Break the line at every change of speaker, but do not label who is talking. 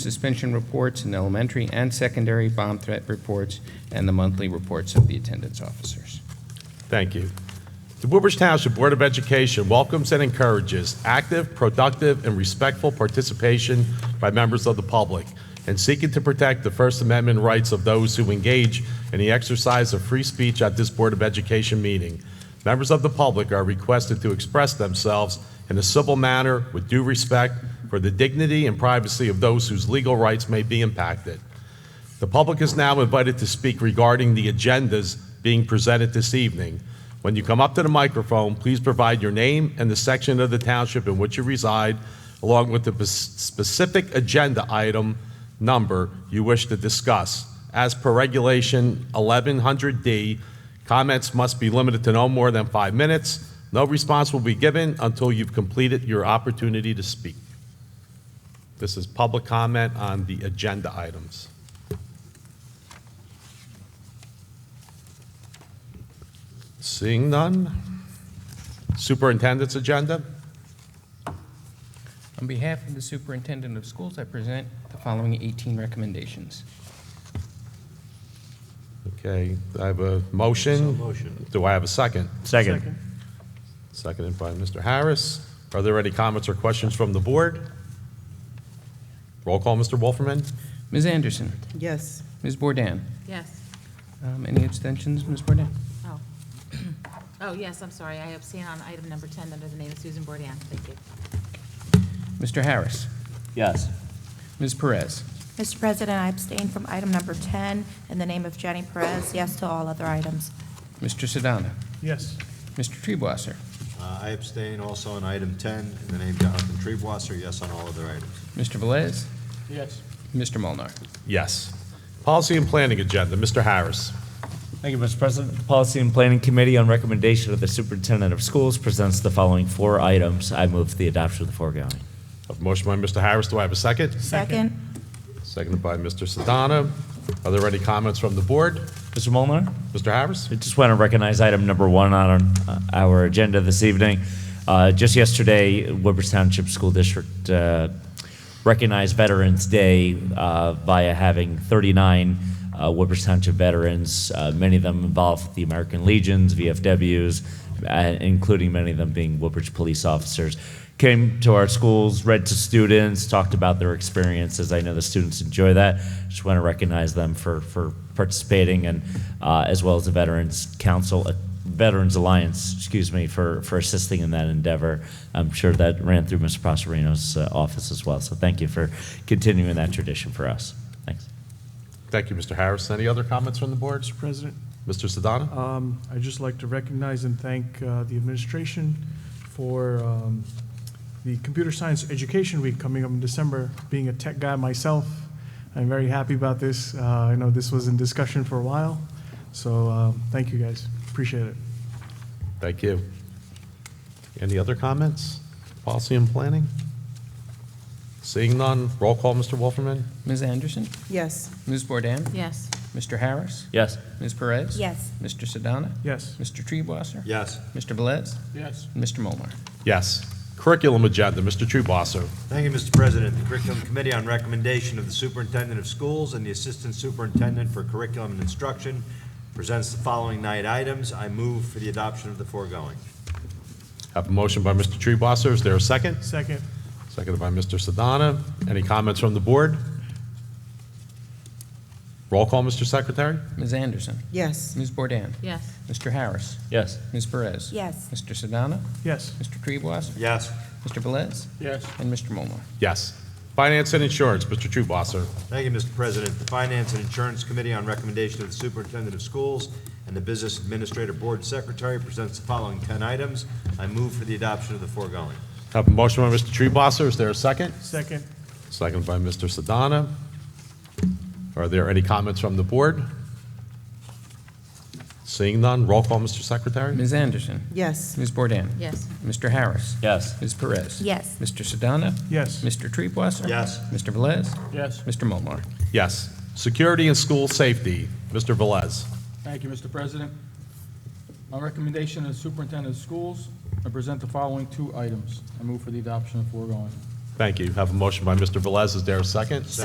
suspension reports in elementary and secondary, bomb threat reports, and the monthly reports of the attendance officers.
Thank you. The Woodbridge Township Board of Education welcomes and encourages active, productive, and respectful participation by members of the public in seeking to protect the First Amendment rights of those who engage in the exercise of free speech at this Board of Education meeting. Members of the public are requested to express themselves in a civil manner with due respect for the dignity and privacy of those whose legal rights may be impacted. The public is now invited to speak regarding the agendas being presented this evening. When you come up to the microphone, please provide your name and the section of the township in which you reside, along with the pes- specific agenda item number you wish to discuss. As per Regulation 1100D, comments must be limited to no more than five minutes. No response will be given until you've completed your opportunity to speak. This is public comment on the agenda items. Seeing none. Superintendent's agenda.
On behalf of the Superintendent of Schools, I present the following 18 recommendations.
Okay, I have a motion. motion. Do I have a second?
Second.
Seconded by Mr. Harris. Are there any comments or questions from the board? Roll call, Mr. Wolferman?
Ms. Anderson,
Yes.
Ms. Bourdain,
Yes.
Um, any abstentions, Ms. Bourdain?
Oh. Oh, yes, I'm sorry. I abstain on item number 10 under the name of Susan Bourdain. Thank you.
Mr. Harris,
Yes.
Ms. Perez,
Mr. President, I abstain from item number 10 in the name of Jenny Perez. Yes to all other items.
Mr. Sedana,
Yes.
Mr. Treebwasser,
Uh, I abstain also on item 10, in the name Jonathan Treebwasser, yes on all other items.
Mr. Velez,
Yes.
Mr. Molnar.
Yes. Policy and Planning Agenda, Mr. Harris.
Thank you, Mr. President. The Policy and Planning Committee, on recommendation of the Superintendent of Schools, presents the following four items. I move for the adoption of the foregoing.
A motion by Mr. Harris. Do I have a second?
Second.
Seconded by Mr. Sedana. Are there any comments from the board?
Mr. Molnar,
Mr. Harris?
I just want to recognize item number one on uh, our agenda this evening. Uh, Just yesterday, Woodbridge Township School District uh, recognized Veterans Day uh, via having 39 uh, Woodbridge Township veterans, uh, many of them involved with the American Legions, VFWs, uh, including many of them being Woodbridge police officers, came to our schools, read to students, talked about their experiences. I know the students enjoy that. Just want to recognize them for, for participating, and uh, as well as the Veterans Council, uh, Veterans Alliance, excuse me, for, for assisting in that endeavor. I'm sure that ran through Mr. Prosperino's uh, office as well. So thank you for continuing that tradition for us. Thanks.
Thank you, Mr. Harris. Any other comments from the board?
Mr. President,
Mr. Sedana?
um, I'd just like to recognize and thank uh, the administration for um, the Computer Science Education Week coming up in December. Being a tech guy myself, I'm very happy about this. Uh, I know this was in discussion for a while, so uh, thank you, guys. Appreciate it.
Thank you. Any other comments? Policy and planning? Seeing none, roll call, Mr. Wolferman?
Ms. Anderson,
Yes.
Ms. Bourdain,
Yes.
Mr. Harris,
Yes.
Ms. Perez?
Yes.
Mr. Sedana,
Yes.
Mr. Treebwasser?
Yes.
Mr. Velez,
Yes.
and Mr. Molnar.
Yes. Curriculum agenda, Mr. Truebosser.
Thank you, Mr. President. The Curriculum Committee, on recommendation of the Superintendent of Schools and the Assistant Superintendent for Curriculum and Instruction, presents the following nine items. I move for the adoption of the foregoing.
Have a motion by Mr. Truebosser. Is there a second?
Second.
Seconded by Mr. Sedana. Any comments from the board? Roll call, Mr. Secretary?
Ms. Anderson,
Yes.
Ms. Bourdain,
Yes.
Mr. Harris,
Yes.
Ms. Perez?
Yes.
Mr. Sedana,
Yes.
Mr. Treebwasser?
Yes.
Mr. Velez,
Yes.
and Mr. Molnar.
Yes. Finance and Insurance, Mr. Truebosser.
Thank you, Mr. President. The Finance and Insurance Committee, on recommendation of the Superintendent of Schools and the Business Administrator Board Secretary, presents the following 10 items. I move for the adoption of the foregoing.
Have a motion by Mr. Truebosser. Is there a second?
Second.
Seconded by Mr. Sedana. Are there any comments from the board? Seeing none, roll call, Mr. Secretary?
Ms. Anderson,
Yes.
Ms. Bourdain,
Yes.
Mr. Harris,
Yes.
Ms. Perez?
Yes.
Mr. Sedana,
Yes.
Mr. Treebwasser?
Yes.
Mr. Velez,
Yes.
Mr. Molnar.
Yes. Security and School Safety, Mr. Velez.
Thank you, Mr. President. On recommendation of the superintendent of schools, I present the following two items. I move for the adoption of foregoing.
Thank you. Have a motion by Mr. Velez. Is there a second?